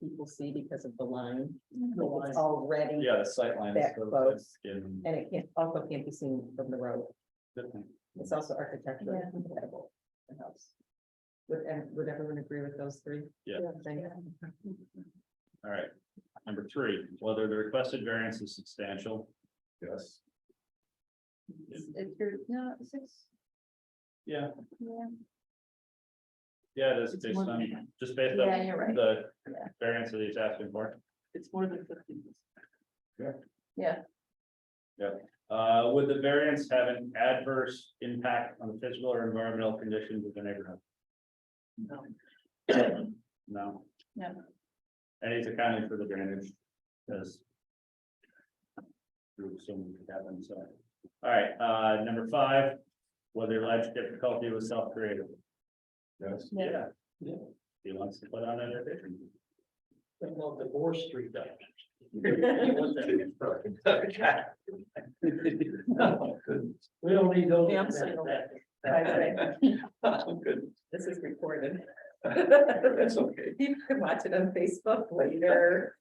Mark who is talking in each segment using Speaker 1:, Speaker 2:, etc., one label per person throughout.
Speaker 1: people see because of the line.
Speaker 2: The
Speaker 1: Like,
Speaker 2: line.
Speaker 1: It's already,
Speaker 2: Yeah, the sight line is
Speaker 1: That
Speaker 2: so
Speaker 1: close.
Speaker 2: thick and
Speaker 1: and it can't, also can't be seen from the road.
Speaker 2: different.
Speaker 1: It's also architecturally
Speaker 3: Yeah.
Speaker 1: compatible. the house. Would, and would everyone agree with those three?
Speaker 2: Yeah.
Speaker 1: things?
Speaker 2: All right, number three, whether the requested variance is substantial. Yes.
Speaker 3: It's your, no, six,
Speaker 2: Yeah,
Speaker 3: yeah.
Speaker 2: yeah, it is
Speaker 1: It's
Speaker 2: based
Speaker 1: more than
Speaker 2: on,
Speaker 1: that.
Speaker 2: just based
Speaker 3: Yeah,
Speaker 2: on
Speaker 3: you're right.
Speaker 2: the
Speaker 3: Yeah.
Speaker 2: variance that he's asking for.
Speaker 1: It's more than fifteen.
Speaker 2: Uh, would the variance have an adverse impact on the physical or environmental conditions of the neighborhood?
Speaker 1: No.
Speaker 2: No.
Speaker 3: No.
Speaker 2: And he's accounting for the drainage, because. Through some happen, so, all right, uh, number five, whether alleged difficulty was self-created. Yes.
Speaker 3: Yeah.
Speaker 2: Yeah. Yeah. He wants to put on an addition.
Speaker 4: Well, the Gore Street dimension. We don't need those.
Speaker 1: Yeah, I'm single. That's
Speaker 4: Good,
Speaker 1: This is recorded.
Speaker 4: Oh, that's okay.
Speaker 1: You can watch it on Facebook later.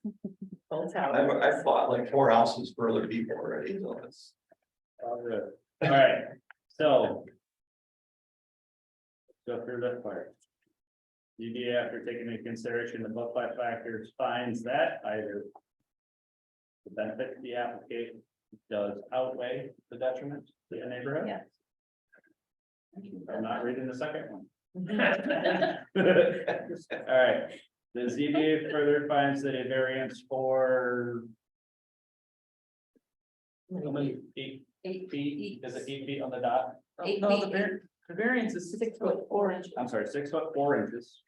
Speaker 1: Full
Speaker 4: I've,
Speaker 1: tower.
Speaker 4: I've fought like four houses for other people already, so it's.
Speaker 2: All good. All right, so. Go through that part. UDA after taking into consideration the above five factors finds that either. The benefit to the applicant does outweigh the detriment to the neighborhood.
Speaker 3: Yeah.
Speaker 2: I'm not reading the second one. All right, the ZBA further finds that a variance for how many eight
Speaker 3: Eight
Speaker 2: feet, is it eight feet on the dot?
Speaker 3: Eight
Speaker 1: No, the
Speaker 3: feet.
Speaker 1: var- the variance is six foot four inches.
Speaker 2: I'm sorry, six foot four inches.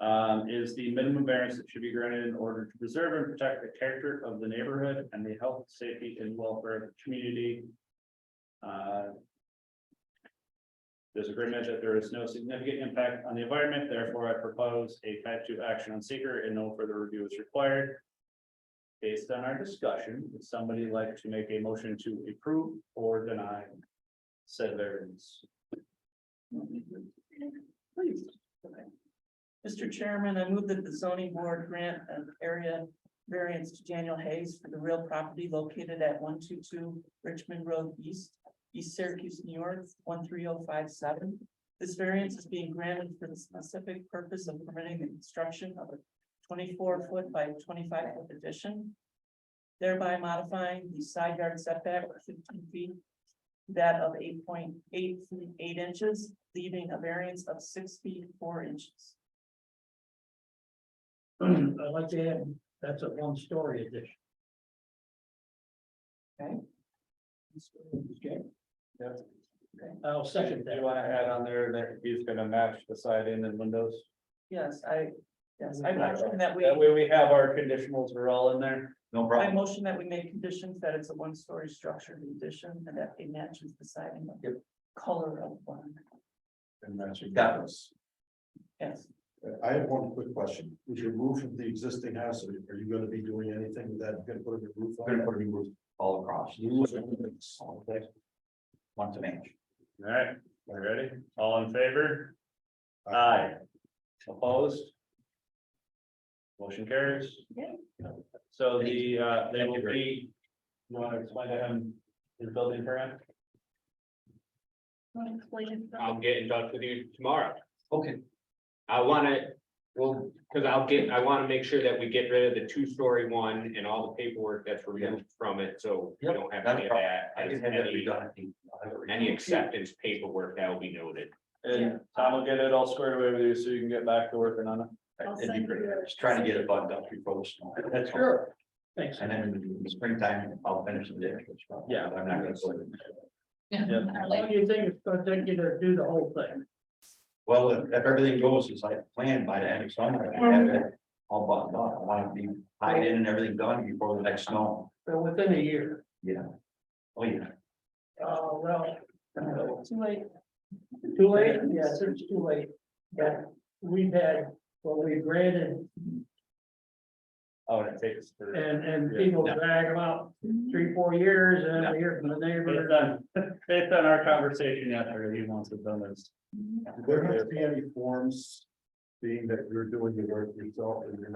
Speaker 2: Um, is the minimum variance that should be granted in order to preserve and protect the character of the neighborhood and the health, safety and welfare of the community. Uh, There's agreement that there is no significant impact on the environment, therefore I propose a type two action on seeker and no further review is required. Based on our discussion, would somebody like to make a motion to approve or deny said variance?
Speaker 5: Please. Mr. Chairman, I move that the zoning board grant an area variance to Daniel Hayes for the real property located at one two two Richmond Road East, East Syracuse, New York, one three oh five seven. This variance is being granted for the specific purpose of permitting the construction of a twenty-four foot by twenty-five foot addition, thereby modifying the side yard setback of fifteen feet that of eight point eight feet, eight inches, leaving a variance of six feet, four inches.
Speaker 4: I'd like to add, that's a one-story addition.
Speaker 2: Okay. Yep.
Speaker 4: I'll second
Speaker 2: Do you wanna add on there that he's gonna match the side in and windows?
Speaker 5: Yes, I, yes, I motion that we,
Speaker 2: That way we have our conditionals, we're all in there.
Speaker 4: No
Speaker 5: I
Speaker 4: problem.
Speaker 5: motion that we make conditions that it's a one-story structure in addition and that it matches the siding of the color of one,
Speaker 6: And that's your
Speaker 4: Got this.
Speaker 5: yes.
Speaker 6: I have one quick question. Is your roof of the existing house, are you- are you gonna be doing anything with that, You're gonna put a new roof
Speaker 4: We're
Speaker 6: on
Speaker 4: gonna
Speaker 6: it?
Speaker 4: put a new roof all across. One to match.
Speaker 2: All right, we ready? All in favor? Aye. Opposed? Motion carries.
Speaker 3: Yeah.
Speaker 2: So the, uh, they will be, you wanna explain to him his building permit?
Speaker 3: Wanna explain it?
Speaker 7: I'll get in touch with you tomorrow.
Speaker 4: Okay.
Speaker 7: I wanna, well, cause I'll get, I wanna make sure that we get rid of the two-story one and all the paperwork that's removed from it, so we
Speaker 4: Yep,
Speaker 7: don't have
Speaker 4: not a
Speaker 7: any of that.
Speaker 4: I
Speaker 7: as
Speaker 4: can have that
Speaker 7: Any
Speaker 4: redone. I think. I'll have it redone.
Speaker 7: any acceptance paperwork that will be noted.
Speaker 2: And Tom will get it all squared away with you so you can get back to working on it.
Speaker 3: I'll
Speaker 4: That'd be
Speaker 3: send
Speaker 4: great.
Speaker 3: you a-
Speaker 4: Just trying to get it buttoned up before the snow. That's sure. Thanks. And then in the springtime, I'll finish the damage.
Speaker 2: Yeah.
Speaker 4: I'm not gonna go in.
Speaker 3: Like,
Speaker 5: you think it's gonna take you to do the whole thing?
Speaker 4: Well, if if everything goes as I planned by the end of summer, I can
Speaker 5: Um,
Speaker 4: have it all buttoned up. I want to be tied in and everything done before the next snow.
Speaker 5: So within a year.
Speaker 4: Yeah. Oh, yeah.
Speaker 5: Oh, well. Too late. Too late? Yes, it's too late. Yeah, we've had, what we granted
Speaker 2: Oh, and it takes. for-
Speaker 5: and, and
Speaker 2: Yeah.
Speaker 5: people drag them out
Speaker 4: Uh,
Speaker 5: three, four years and then we hear from the
Speaker 2: Based
Speaker 5: neighbor.
Speaker 2: on, based on our conversation yesterday, he wants it done as
Speaker 6: There have to be any forms
Speaker 4: being that you're doing your work yourself and you're not